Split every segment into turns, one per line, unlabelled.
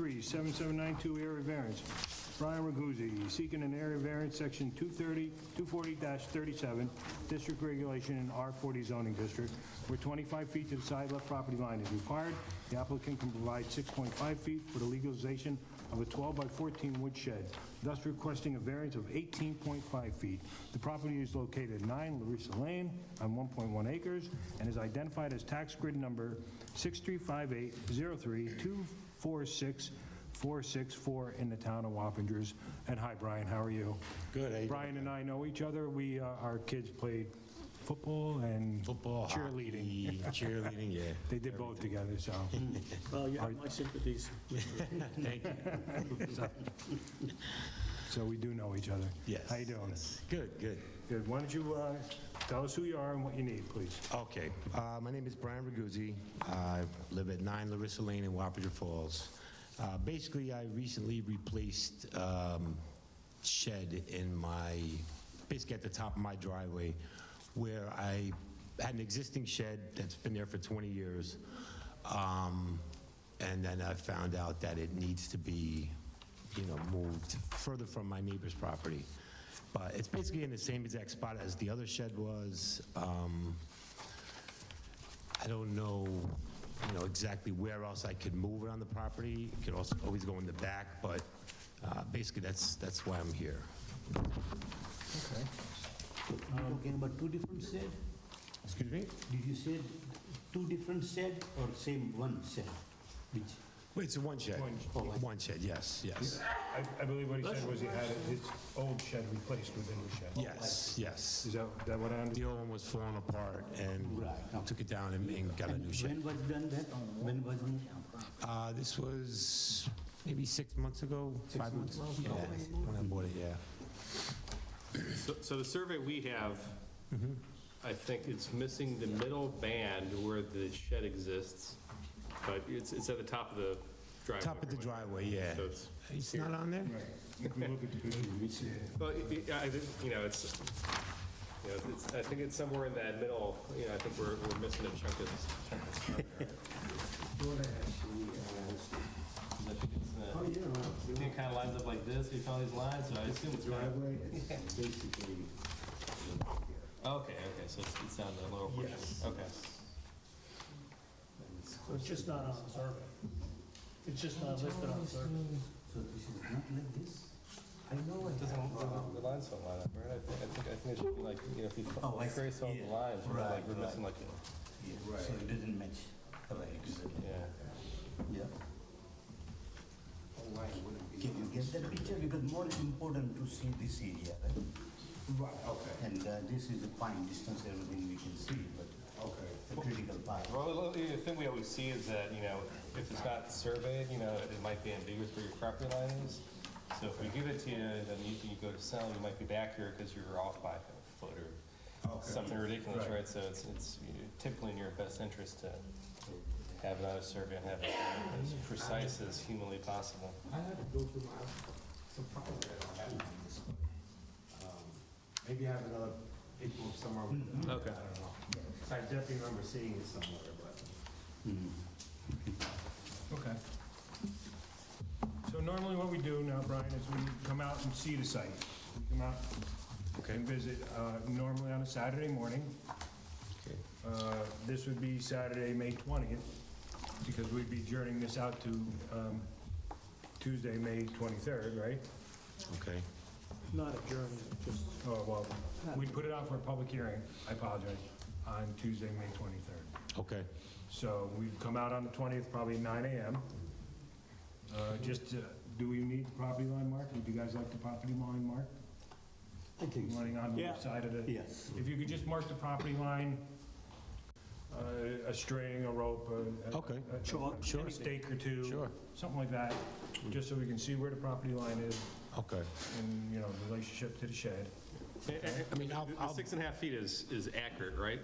three, seven seven nine two area variance. Brian Raguzzi, seeking an area variance, section 230, 240-37, district regulation in R40 zoning district, where 25 feet to the side left property line is required. The applicant can provide 6.5 feet for the legalization of a 12 by 14 wood shed, thus requesting a variance of 18.5 feet. The property is located at 9 Larissa Lane on 1.1 acres and is identified as tax grid number 63580324646 in the town of Wappingers. And hi, Brian, how are you?
Good, eh? how you doing?
Brian and I know each other. We, uh, our kids played football and
Football,
cheerleading.
hockey, Cheerleading, yeah.
They did both together, so.
Well, you have my sympathies.
Thank you.
So we do know each other.
Yes.
How you doing?
Good, good.
Good. Why don't you uh, tell us who you are and what you need, please?
Okay, uh, my name is Brian Raguzzi. I live at 9 Larissa Lane in Wapager Falls. Uh, Basically, I recently replaced um, shed in my, basically at the top of my driveway, where I had an existing shed that's been there for 20 years. Um, And then I found out that it needs to be, you know, moved further from my neighbor's property. But it's basically in the same exact spot as the other shed was. Um, I don't know, you know, exactly where else I could move it on the property. It could also always go in the back, but uh, basically, that's, that's why I'm here.
You're talking about two different shed?
Excuse me?
Did you say two different shed or same one shed? Which,
Wait, it's one shed?
Oh, one.
One shed, yes, yes.
I, I believe what he said was he had his old shed replaced with a new shed.
Yes, yes.
Is that, that what I
The
understand?
old one was falling apart and
Right, okay.
took it down and- and got a new shed.
when was done that? When was moved?
Uh, This was maybe six months ago, five months? Yeah, when I bought it, yeah.
So- So the survey we have, I think it's missing the middle band where the shed exists, but it's, it's at the top of the driveway.
Top of the driveway, yeah.
So it's,
It's not on there?
If we look at the picture, we see it.
well, it- it- I think, you know, it's, you know, it's, I think it's somewhere in that middle, you know, I think we're, we're missing a chunk of. chunk of stuff there. 'Cause I think it's,
Oh,
uh, I think it kind of lines up like this, we found these lines, so I assume it's right. Okay, okay, so it's, it's down the lower portion, okay.
It's just not on the survey. It's just not listed on the survey.
So this is not like this? I know it.
Doesn't, doesn't, the lines don't line up, right? I think, I think, I think it should be like, you know, if you
Oh, I see.
trace all the
Yeah.
lines, you know,
Right,
like, we're missing like,
Yeah, So it doesn't match. Right, exactly.
yeah.
Yeah. Oh, Can you get that picture? Because more important to see this area, right? Right, okay. And uh, this is a fine distance, everything we can see, but. Okay. The critical part.
Well, the- the thing we always see is that, you know, if it's not surveyed, you know, it might be ambiguous where your property line is. So if we give it to you, then you, you go to sell, you might be back here because you're off by a foot or something ridiculous, right? So it's, it's typically in your best interest to have it on a survey and have it as precise as humanly possible.
I had to go through my, some problem that I had on this, but, um, maybe I have another paper somewhere with it.
Mm-hmm. Okay.
I don't know. 'Cause I definitely remember seeing it somewhere, but.
Okay. So normally what we do now, Brian, is we come out and see the site. We come out and visit, uh, normally on a Saturday morning. Uh, This would be Saturday, May 20th, because we'd be journeying this out to um, Tuesday, May 23rd, right?
Okay.
Not adjourned, just.
Oh, well, we put it out for a public hearing, I apologize, on Tuesday, May 23rd.
Okay.
So we'd come out on the 20th, probably 9 AM. Uh, Just, uh, do we need the property line marked? Would you guys like the property line marked?
I think
Running on the
Yeah.
left side of the...
Yes.
If you could just mark the property line, uh, a string, a rope, a... a-
Okay.
a-
Sure.
A stake or two.
Sure.
Something like that, just so we can see where the property line is
Okay.
and, you know, relationship to the shed.
I mean, I'll,
The
I'll,
six and a half feet is, is accurate, right?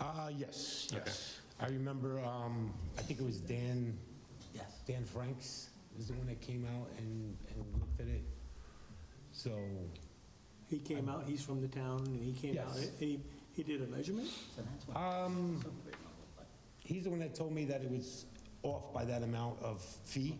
uh, yes,
Okay.
yes. I remember, um, I think it was Dan,
Yes.
Dan Franks is the one that came out and, and looked at it. So,
He came out, he's from the town, and he came out,
Yes.
and he, he did a measurement?
um, he's the one that told me that it was off by that amount of feet.